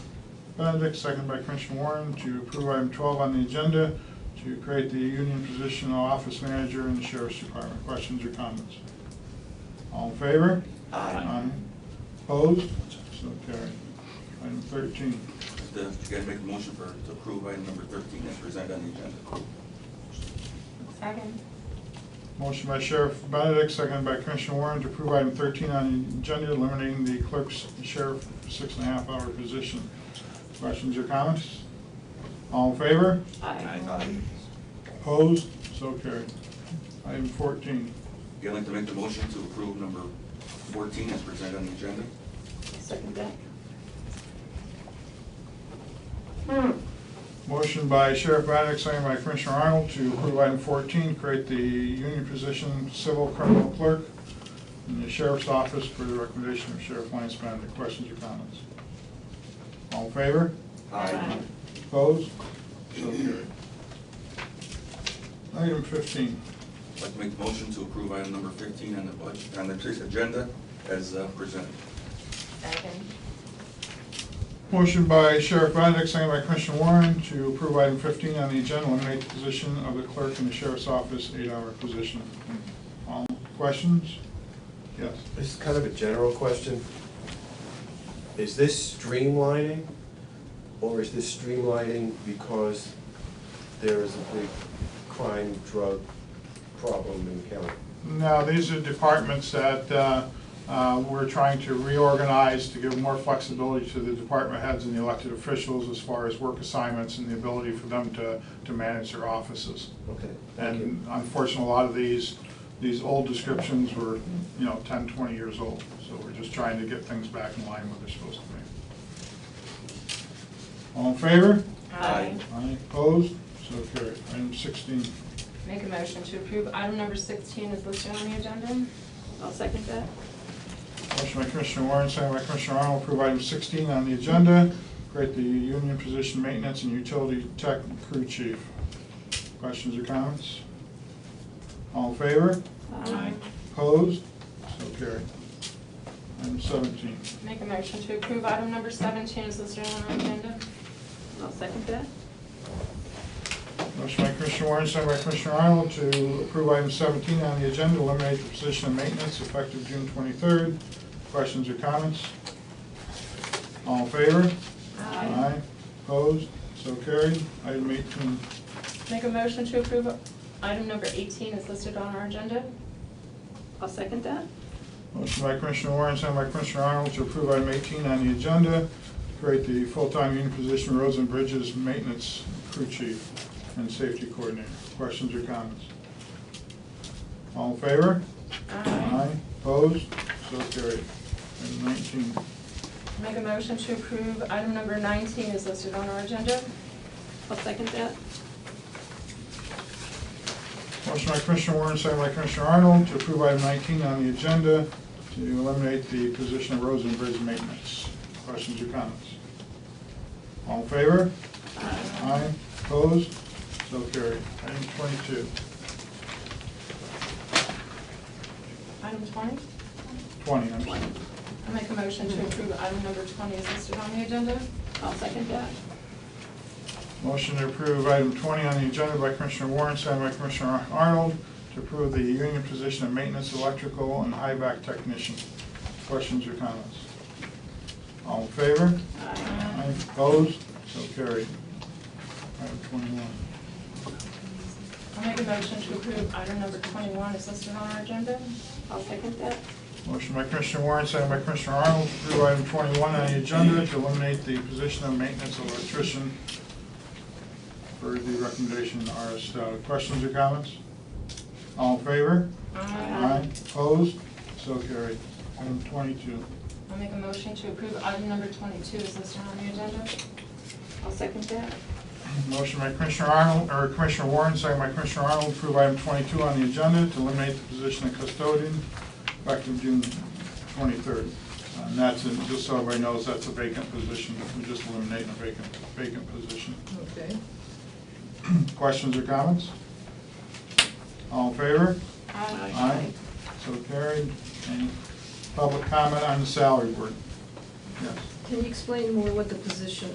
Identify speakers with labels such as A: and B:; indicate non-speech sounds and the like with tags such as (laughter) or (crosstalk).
A: Benedict, second by Commissioner Warren, to approve item 12 on the agenda to create the union position of office manager in the sheriff's department. Questions or comments? All in favor?
B: Aye.
A: Opposed? So carried. Item 13.
B: If the- if you guys make a motion for, to approve item number thirteen as presented on the agenda.
C: Second.
A: Motion by Sheriff Benedict, second by Commissioner Warren, to approve item 13 on the agenda, eliminating the clerk's sheriff six and a half hour position. Questions or comments? All in favor?
B: Aye.
A: Opposed? So carried. Item 14.
B: Again, I'd like to make the motion to approve number fourteen as presented on the agenda.
C: Second that. Hmm.
A: Motion by Sheriff Benedict, second by Commissioner Arnold, to approve item 14, create the union position civil criminal clerk in the sheriff's office for the recommendation of Sheriff Lance Benedict. Questions or comments? All in favor?
C: Aye.
A: Opposed? So carried. Item 15.
B: I'd like to make the motion to approve item number fifteen on the budget, on the agenda as uh, presented.
C: Second.
A: Motion by Sheriff Benedict, second by Commissioner Warren, to approve item 15 on the agenda, eliminate the position of the clerk in the sheriff's office, eight-hour position. All questions? Yes.
D: This is kind of a general question. Is this streamlining, or is this streamlining because there is a big crime, drug problem in the county?
A: No, these are departments that uh, uh, we're trying to reorganize to give more flexibility to the department heads and the elected officials as far as work assignments and the ability for them to, to manage their offices.
D: Okay, thank you.
A: And unfortunately, a lot of these, these old descriptions were, you know, 10, 20 years old. So we're just trying to get things back in line where they're supposed to be. All in favor?
B: Aye.
A: Aye. Opposed? So carried. Item 16.
C: Make a motion to approve item number sixteen is listed on the agenda. I'll second that.
A: Motion by Commissioner Warren, second by Commissioner Arnold, approve item 16 on the agenda, create the union position maintenance and utility tech crew chief. Questions or comments? All in favor?
C: Aye.
A: Opposed? So carried. Item 17.
C: Make a motion to approve item number seventeen is listed on the agenda. I'll second that.
A: Motion by Commissioner Warren, second by Commissioner Arnold, to approve item 17 on the agenda, eliminate the position of maintenance effective June 23rd. Questions or comments? All in favor?
C: Aye.
A: Opposed? So carried. Item 18.
C: Make a motion to approve item number eighteen is listed on our agenda. I'll second that.
A: Motion by Commissioner Warren, second by Commissioner Arnold, to approve item 18 on the agenda, create the full-time union position roads and bridges maintenance crew chief and safety coordinator. Questions or comments? All in favor? Opposed? So carried. Item 19.
C: Make a motion to approve item number nineteen is listed on our agenda. I'll second that.
A: Motion by Commissioner Warren, second by Commissioner Arnold, to approve item 19 on the agenda, to eliminate the position of roads and bridge maintenance. Questions or comments? All in favor? Aye. Opposed? So carried. Item 22.
C: Item twenty?
A: 20, I'm sorry.
C: I make a motion to approve item number twenty is listed on the agenda. I'll second that.
A: Motion to approve item 20 on the agenda by Commissioner Warren, second by Commissioner Arnold, to approve the union position of maintenance electrical and high-back technician. Questions or comments? All in favor? Aye. Opposed? So carried. Item 21.
C: I make a motion to approve item number twenty-one is listed on our agenda. I'll second that.
A: Motion by Commissioner Warren, second by Commissioner Arnold, to approve item 21 on the agenda to eliminate the position of maintenance electrician for the recommendation in RS Stout. Questions or comments? All in favor? Opposed? So carried. Item 22.
C: I make a motion to approve item number twenty-two is listed on the agenda. I'll second that.
A: Motion by Commissioner Arnold, or Commissioner Warren, second by Commissioner Arnold, approve item 22 on the agenda to eliminate the position of custodian effective June 23rd. And that's, in- just so everybody knows, that's a vacant position. We're just eliminating a vacant, vacant position. (clears throat)
E: Okay.
A: Questions or comments? All in favor?
C: Aye.
A: So carried. Any public comment on the salary board? Yes.
E: Can you explain more what the position